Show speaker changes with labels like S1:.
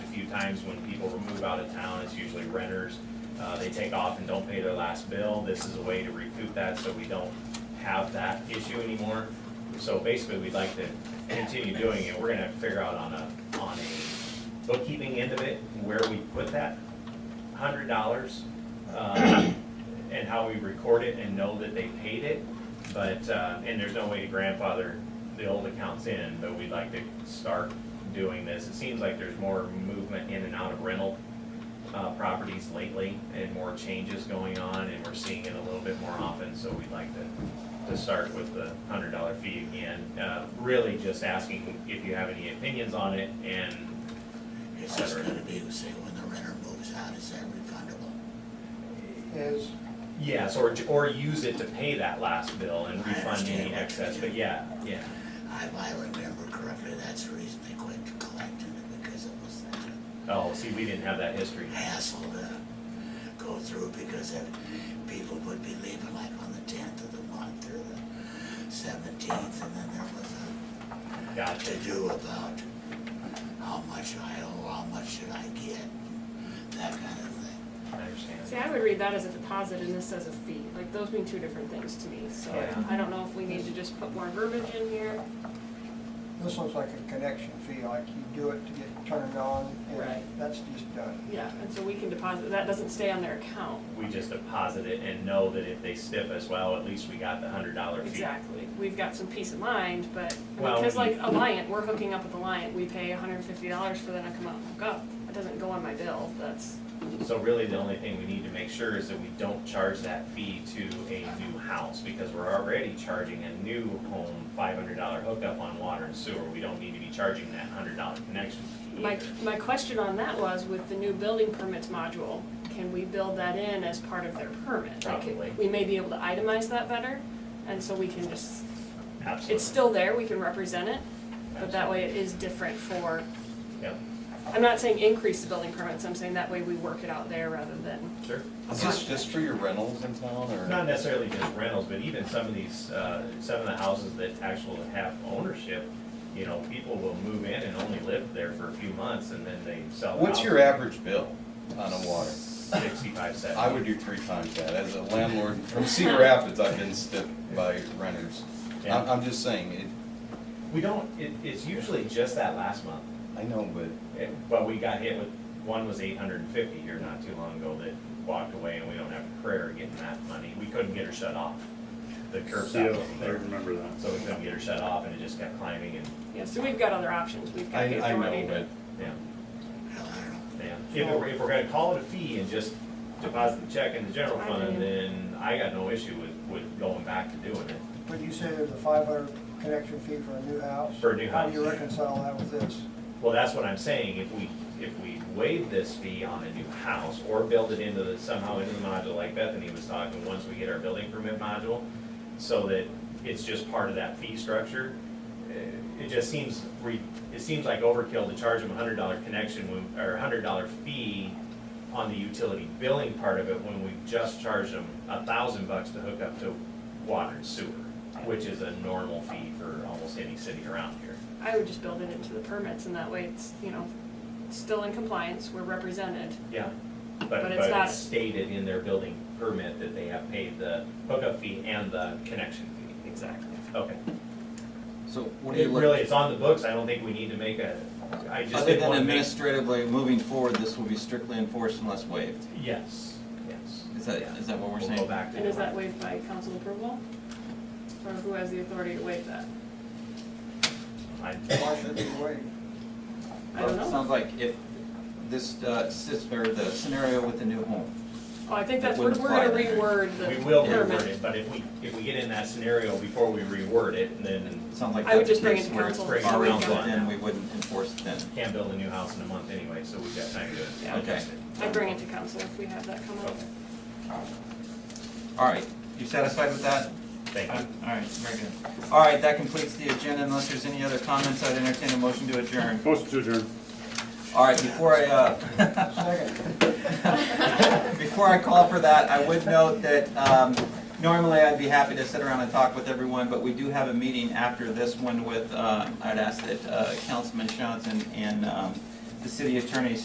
S1: times when people move out of town, it's usually renters. Uh, they take off and don't pay their last bill. This is a way to recoup that, so we don't have that issue anymore. So basically, we'd like to continue doing it. We're gonna have to figure out on a, on a bookkeeping end of it, where we put that hundred dollars, um, and how we record it and know that they paid it. But, uh, and there's no way to grandfather the old accounts in, but we'd like to start doing this. It seems like there's more movement in and out of rental, uh, properties lately and more changes going on and we're seeing it a little bit more often, so we'd like to, to start with the hundred dollar fee again. Uh, really just asking if you have any opinions on it and et
S2: Is this
S1: cetera.
S2: gonna be, say, when the renter moves out, is that refundable?
S3: Is,
S1: Yes, or, or use it to pay that last bill and
S2: I
S1: refund
S2: understand
S1: any
S2: what
S1: excess,
S2: you're
S1: but
S2: doing.
S1: yeah, yeah.
S2: If I remember correctly, that's the reason they quit collecting it, because it was that
S1: Oh, see, we didn't have that history.
S2: hassle to go through, because then people would be leaving like on the tenth of the month or the seventeenth, and then there was a
S1: Gotcha.
S2: to-do about how much I owe, how much should I get, that kind of thing.
S1: I
S4: See,
S1: understand.
S4: I would read that as a deposit and this as a fee, like those mean two different things to me, so
S1: Yeah.
S4: I don't know if we need to just put more verbiage in here.
S3: this looks like a connection fee, like you do it to get turned on, and
S4: Right.
S3: that's just done.
S4: Yeah, and so we can deposit, that doesn't stay on their account.
S1: We just deposit it and know that if they stiff us, well, at least we got the hundred dollar fee.
S4: Exactly, we've got some peace of mind, but,
S1: Well,
S4: because like
S1: we-
S4: Alliant, we're hooking up with Alliant, we pay hundred and fifty dollars for them to come out and hook up. It doesn't go on my bill, that's,
S1: So really, the only thing we need to make sure is that we don't charge that fee to a new house, because we're already charging a new home five hundred dollar hookup on water and sewer. We don't need to be charging that hundred dollar connection fee
S4: my,
S1: either.
S4: my question on that was with the new building permits module, can we build that in as part of their permit? Like,
S1: Probably.
S4: We may be able to itemize that better, and so we can just It's
S1: Absolutely.
S4: still there, we can represent it, but that way it is different for,
S1: Yep,
S4: I'm not saying increase the building permits, I'm saying that way we work it out there rather than,
S1: sure.
S5: Is this just for your rentals in town, or?
S1: Not necessarily just rentals, but even some of these, uh, some of the houses that actually have ownership, you know, people will move in and only live there for a few months and then they sell. the
S5: What's
S1: house
S5: your
S1: for
S5: average bill on a water?
S1: Sixty-five, seventy.
S5: I would do three times that, as a landlord from Cedar Rapids, I've been stiffed by renters. I'm,
S1: Yeah.
S5: I'm just saying, it,
S1: We don't, it, it's usually just that last month,
S5: I know, but
S1: Eh, but we got hit with, one was eight hundred and fifty here not too long ago that walked away and we don't have a prayer getting that money. We couldn't get her shut off. The curb stop
S6: Yeah,
S1: wasn't
S6: I
S1: there,
S6: remember that.
S1: so we couldn't get her shut off and it just kept climbing and,
S4: yeah, so we've got other options, we've got
S5: I,
S4: the
S5: I
S4: authority
S5: know,
S4: to.
S5: but
S1: yeah.
S2: Hell, I don't know.
S1: Yeah, if we're, if we're gonna call it a fee and just deposit the check in the general
S4: I do.
S1: fund, then I got no issue with, with going back to doing it.
S3: Would you say there's a five hundred connection fee for a new house?
S1: For a new
S3: How do you
S1: house.
S3: reconcile that with this?
S1: Well, that's what I'm saying, if we, if we waive this fee on a new house or build it into the, somehow into the module like Bethany was talking, once we get our building permit module, so that it's just part of that fee structure, eh, it just seems re, it seems like overkill to charge them a hundred dollar connection when, or a hundred dollar fee on the utility billing part of it when we just charged them a thousand bucks to hook up to water and sewer, which is a normal fee for almost any city around here.
S4: I would just build it into the permits and that way it's, you know, it's still in compliance, we're represented.
S1: Yeah, but,
S4: But
S1: but
S4: it's not-
S1: it's stated in their building permit that they have paid the hookup fee and the connection fee.
S4: Exactly.
S1: Okay.
S7: So what do
S1: It
S7: you
S1: really,
S7: look,
S1: it's on the books, I don't think we need to make a, I just
S7: other
S1: didn't
S7: than
S1: want to make.
S7: administratively, moving forward, this will be strictly enforced unless waived?
S1: Yes, yes.
S7: Is that,
S1: Yeah.
S7: is that what we're
S1: We'll
S7: saying?
S1: go back to.
S4: And is
S1: it.
S4: that waived by council approval? Or who has the authority to waive that?
S1: I-
S3: Why should it be waived?
S4: I don't
S7: Well, it
S4: know.
S7: Sounds like if this, uh, sis- or the scenario with the new home,
S4: Oh, I think
S7: That
S4: that's, we're,
S7: wouldn't
S4: we're gonna
S7: apply then, right?
S4: reword the
S1: We
S4: permit.
S1: will reword it, but if we, if we get in that scenario before we reword it, then
S7: it sounds like
S4: I would
S7: that's
S4: just
S7: the
S4: bring it
S7: case
S4: to
S7: where it's
S4: council
S1: so we
S7: already
S1: can-
S7: built in, we wouldn't enforce it then.
S1: can't build a new house in a month anyway, so we've got time to
S4: Yeah.
S1: adjust it.
S4: I bring it to council if we have that come up.
S1: Okay.
S7: All right, you satisfied with that?
S1: Thank
S7: All
S1: you.
S7: right, very good. All right, that completes the agenda, unless there's any other comments, I'd entertain a motion to adjourn.
S6: Motion to adjourn.
S7: All right, before I, uh,
S3: Second.
S7: Before I call for that, I would note that um, normally I'd be happy to sit around and talk with everyone, but we do have a meeting after this one with, uh, I'd ask that uh, Councilman Johnson and um, the city attorney